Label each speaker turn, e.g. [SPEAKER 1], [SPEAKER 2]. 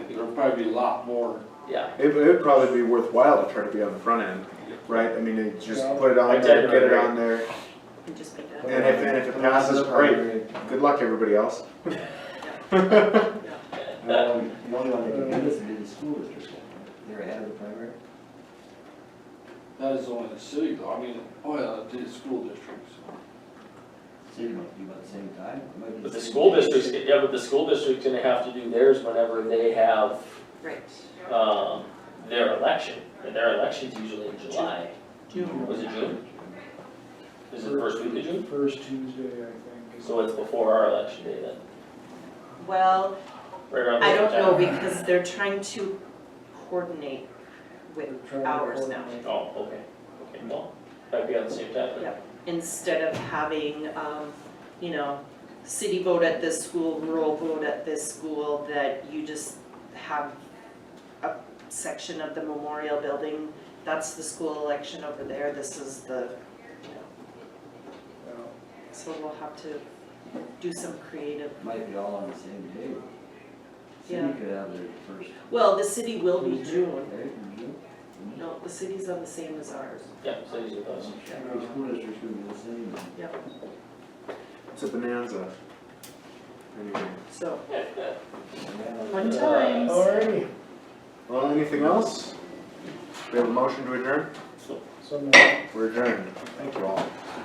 [SPEAKER 1] would probably be a lot more.
[SPEAKER 2] yeah.
[SPEAKER 3] It, it'd probably be worthwhile to try to be on the front end, right? I mean, you just
[SPEAKER 4] Yeah.
[SPEAKER 3] put it
[SPEAKER 2] I
[SPEAKER 3] on there,
[SPEAKER 2] tend to
[SPEAKER 3] get it
[SPEAKER 2] agree.
[SPEAKER 3] on there,
[SPEAKER 5] and just pick it up.
[SPEAKER 3] and if, and if it passes, great. Good luck, everybody else.
[SPEAKER 4] Um, The only one that can do this would be the school district, they're ahead of the primary.
[SPEAKER 1] That is only the city though, I mean, oh yeah, it is school districts.
[SPEAKER 4] City might be about the same time. It might be
[SPEAKER 2] But the
[SPEAKER 4] same
[SPEAKER 2] school
[SPEAKER 4] day.
[SPEAKER 2] district's, yeah, but the school district's gonna have to do theirs whenever they have,
[SPEAKER 5] Right.
[SPEAKER 2] um, their election. And their election's usually in July. Was it June? Is it the first week of June?
[SPEAKER 6] First Tuesday, I think.
[SPEAKER 2] So it's before our election day then,
[SPEAKER 5] Well,
[SPEAKER 2] right around the
[SPEAKER 5] I
[SPEAKER 2] same
[SPEAKER 5] don't know
[SPEAKER 2] time?
[SPEAKER 5] because they're trying to coordinate with ours now.
[SPEAKER 2] Oh, okay, okay, well, might be on the same time then.
[SPEAKER 5] Yep. Instead of having, um, you know, city vote at this school, rural vote at this school, that you just have a section of the memorial building, that's the school election over there, this is the, you know, so we'll have to do some creative.
[SPEAKER 4] Might be all on the same day.
[SPEAKER 5] Yeah.
[SPEAKER 4] City could have their first.
[SPEAKER 5] Well, the city will be June,
[SPEAKER 4] Right, in June?
[SPEAKER 5] no, the city's on the same as ours.
[SPEAKER 2] Yeah, so these are those.
[SPEAKER 4] The school district's gonna be the same.
[SPEAKER 5] Yep.
[SPEAKER 3] It's a bonanza. Anyway,
[SPEAKER 5] So,
[SPEAKER 4] Yeah.
[SPEAKER 5] fun
[SPEAKER 2] Uh,
[SPEAKER 5] times.
[SPEAKER 6] Alrighty,
[SPEAKER 3] well, anything else? We have a motion to adjourn?
[SPEAKER 2] oh,
[SPEAKER 6] so now.
[SPEAKER 3] We're adjourned. Thank you all.